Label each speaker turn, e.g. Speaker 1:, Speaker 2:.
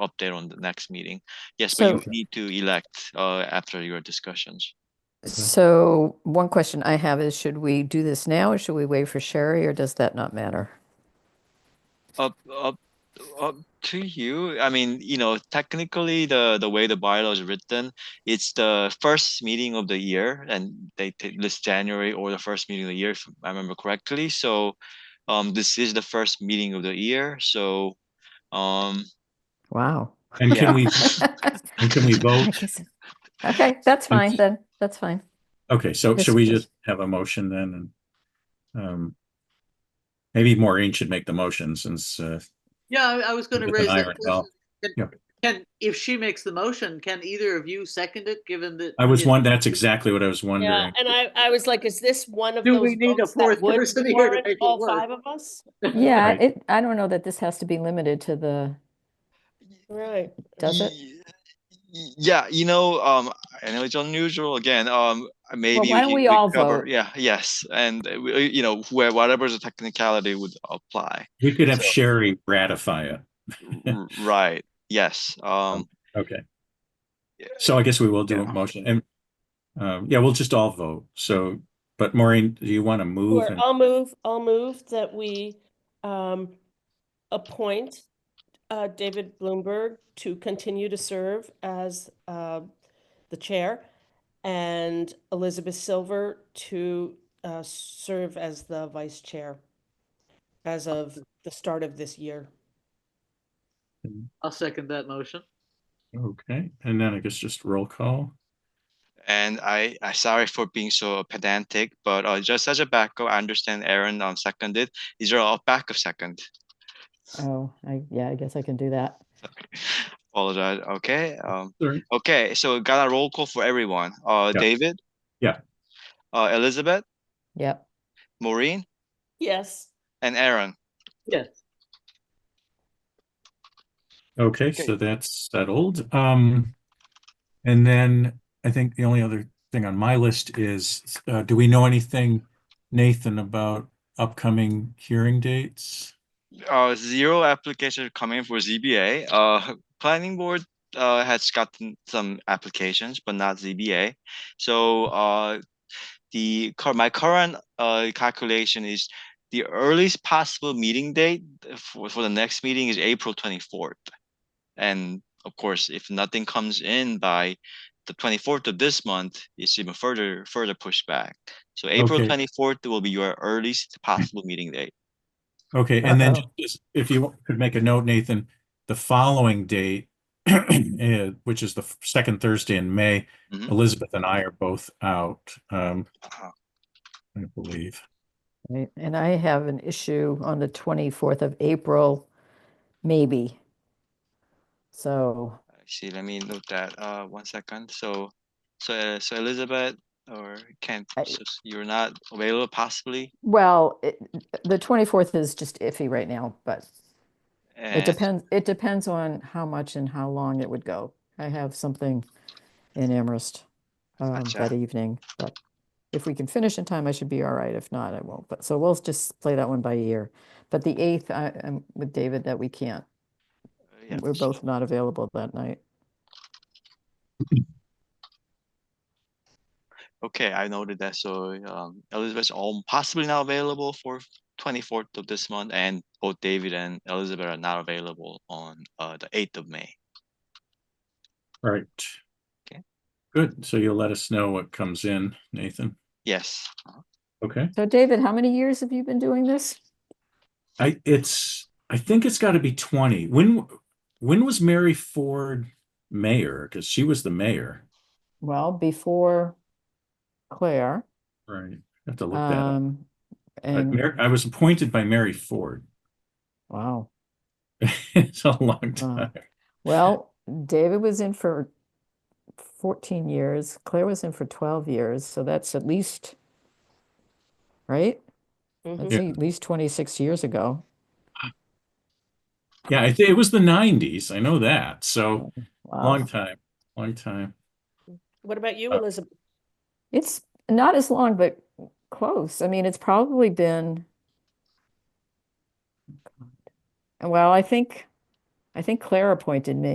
Speaker 1: update on the next meeting. Yes,
Speaker 2: So-
Speaker 1: but you need to elect uh, after your discussions.
Speaker 2: So one question I have is, should we do this now or should we wait for Sherry or does that not matter?
Speaker 1: Up, up, up to you. I mean, you know, technically, the the way the bylaw is written, it's the first meeting of the year, and they t- list January or the first meeting of the year, if I remember correctly. So, um, this is the first meeting of the year. So, um,
Speaker 2: Wow.
Speaker 3: And can we,
Speaker 2: Okay,
Speaker 3: and can we vote?
Speaker 2: that's fine then. That's fine.
Speaker 3: Okay, so
Speaker 2: Yes,
Speaker 3: should we
Speaker 2: please.
Speaker 3: just have a motion then? And um, Maybe Maureen should make the motion since, uh,
Speaker 4: Yeah, I- I was gonna
Speaker 3: Get
Speaker 4: raise
Speaker 3: an
Speaker 4: that.
Speaker 3: iron
Speaker 4: question.
Speaker 3: Yeah.
Speaker 4: Can- Can, if she makes the motion, can either of you second it, given that?
Speaker 3: I was
Speaker 4: you know,
Speaker 3: one, that's exactly what I was
Speaker 5: Yeah,
Speaker 3: wondering.
Speaker 5: and I, I was like, is this one of
Speaker 4: Do
Speaker 5: those?
Speaker 4: we need a
Speaker 5: votes that
Speaker 4: fourth
Speaker 5: would
Speaker 4: person here to
Speaker 5: warrant
Speaker 4: make it
Speaker 5: All
Speaker 4: work?
Speaker 5: five of us?
Speaker 2: Yeah,
Speaker 3: Right.
Speaker 2: it, I don't know that this has to be limited to the,
Speaker 5: Right.
Speaker 2: does it?
Speaker 1: Ye- y- Yeah, you know, um, I know it's unusual again, um, maybe.
Speaker 2: why don't
Speaker 1: can-
Speaker 2: we all
Speaker 1: cover-
Speaker 2: vote?
Speaker 1: Yeah, yes, and uh, we, uh, you know, where whatever's the technicality would apply,
Speaker 3: We could have Sherry ratify it.
Speaker 1: R- right, yes, um,
Speaker 3: Okay. So I guess we will do a
Speaker 1: Yeah.
Speaker 3: motion and, um, yeah, we'll just all vote. So, but Maureen, do you want to move?
Speaker 5: Sure,
Speaker 3: and-
Speaker 5: I'll move, I'll move that we um, appoint uh, David Bloomberg to continue to serve as uh, the chair and Elizabeth Silver to uh, serve as the vice chair as of the start of this year.
Speaker 4: I'll second that motion.
Speaker 3: Okay, and then I guess just roll call.
Speaker 1: and I, I sorry for being so pedantic, but, uh, just as a backup, I understand Aaron, um, seconded, is there a backup second?
Speaker 2: Oh, I, yeah, I guess I can do that.
Speaker 1: Apologize, okay, um,
Speaker 3: Sorry.
Speaker 1: okay, so got a roll call for everyone, uh,
Speaker 3: Yeah.
Speaker 1: David?
Speaker 3: Yeah.
Speaker 1: Uh, Elizabeth,
Speaker 2: Yep.
Speaker 1: Maureen?
Speaker 5: Yes.
Speaker 1: and Aaron.
Speaker 4: Yes.
Speaker 3: Okay, so that's settled. Um, and then I think the only other thing on my list is, uh, do we know anything, Nathan, about upcoming hearing dates?
Speaker 1: Uh, zero applications coming for ZBA. Uh, planning board uh has gotten some applications, but not ZBA. So uh, the cur- my current uh calculation is the earliest possible meeting date for for the next meeting is April twenty fourth, and of course, if nothing comes in by the twenty fourth of this month, it's even further further pushed back. So April
Speaker 3: Okay.
Speaker 1: twenty fourth will be your earliest possible meeting date.
Speaker 3: Okay, and then
Speaker 2: Uh-oh.
Speaker 3: just- if you could make a note, Nathan, the following date, eh, which is the f- second Thursday in May,
Speaker 1: Mhm.
Speaker 3: Elizabeth and I are both out, um,
Speaker 1: Uh-huh.
Speaker 3: I believe.
Speaker 2: Right, And I have an issue on the 24th of April, maybe. So,
Speaker 1: I see, let me note that, uh, one second, so, so, uh, so Elizabeth or Kent,
Speaker 2: I-
Speaker 1: so s- you're not available possibly?
Speaker 2: well, it- the 24th is just iffy right now, but It
Speaker 1: and-
Speaker 2: depends, it depends on how much and how long it would go. I have something in Amherst um,
Speaker 1: Gotcha.
Speaker 2: that evening, but if we can finish in time, I should be all right. If not, I won't. But, so we'll just play that one by ear. But the 8th, I am with David that we can't.
Speaker 1: uh, yeah,
Speaker 2: We're both not available that night.
Speaker 1: Okay, I noted that, so, um, Elizabeth's all possibly not available for twenty-fourth of this month, and both David and Elizabeth are not available on, uh, the eighth of May.
Speaker 3: All right.
Speaker 1: Okay.
Speaker 3: Good, so you'll let us know what comes in, Nathan.
Speaker 1: Yes,
Speaker 2: Oh.
Speaker 1: uh-huh.
Speaker 3: Okay.
Speaker 2: So David, how many years have you been doing this?
Speaker 3: I it's I think it's got to be 20. When when was Mary Ford mayor? Because she was the mayor.
Speaker 2: Well, before Claire.
Speaker 3: Right. I have to look that up.
Speaker 2: um,
Speaker 3: But
Speaker 2: And,
Speaker 3: Mar- I was appointed by Mary Ford.
Speaker 2: wow.
Speaker 3: It's a long
Speaker 2: Wow.
Speaker 3: time.
Speaker 2: Well, David was in for 14 years, Claire was in for 12 years, so that's at least, right?
Speaker 5: Mhm.
Speaker 2: That's at least 26 years ago.
Speaker 3: Yeah, I think it was the 90s. I know that. So long
Speaker 2: Oh, Wow.
Speaker 3: time. Long time.
Speaker 5: What about you,
Speaker 3: Uh,
Speaker 5: Elizabeth?
Speaker 2: It's not as long, but close. I mean, it's probably been, God. well, I think, I think Claire appointed me.